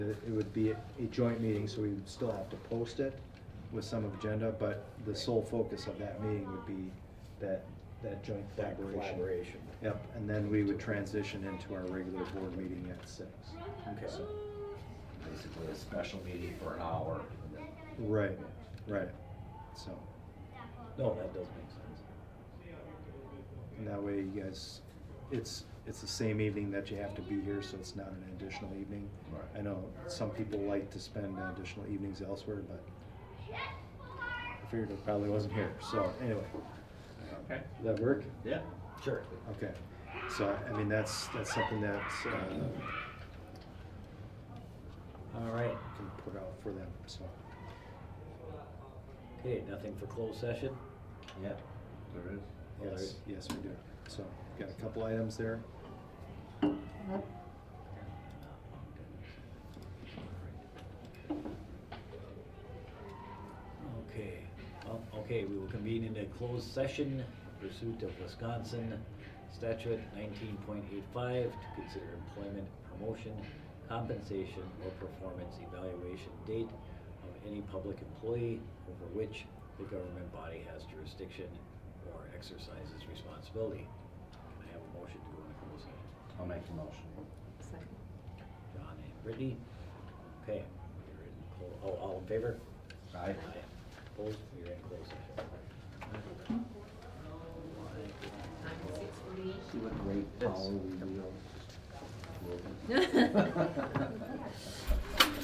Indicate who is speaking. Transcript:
Speaker 1: It would be a joint meeting, so we would still have to post it with some agenda, but the sole focus of that meeting would be that, that joint
Speaker 2: That
Speaker 1: collaboration.
Speaker 2: collaboration.
Speaker 1: Yep, and then we would transition into our regular board meeting at six.
Speaker 2: Okay.
Speaker 1: So,
Speaker 2: Basically a special meeting for an hour. and then-
Speaker 1: Right, right, so,
Speaker 2: No, that does make sense.
Speaker 1: and that way you guys, it's, it's the same evening that you have to be here, so it's not an additional evening.
Speaker 2: Right.
Speaker 1: I know some people like to spend additional evenings elsewhere, but I figured it probably wasn't here, so anyway.
Speaker 2: Okay.
Speaker 1: Does that work?
Speaker 2: Yeah. Sure.
Speaker 1: Okay, so, I mean, that's, that's something that, uh,
Speaker 3: All right,
Speaker 1: can put out for them, so.
Speaker 3: okay, nothing for closed session?
Speaker 2: Yeah. There is.
Speaker 1: Yes, yes, we do. So, got a couple items there.
Speaker 3: Okay, well, okay, we will convene in a closed session pursuit of Wisconsin statute nineteen point eight five to consider employment, promotion, compensation, or performance evaluation date of any public employee over which the government body has jurisdiction or exercises responsibility. Can I have a motion to go into closed session?
Speaker 2: I'll make the motion.
Speaker 4: Second.
Speaker 3: John and Brittany. Okay, we're in, clo- oh, all in favor?
Speaker 2: Aye.
Speaker 3: Opposed, we're in closed session.
Speaker 4: Six forty-eight.
Speaker 2: See what great power we wield.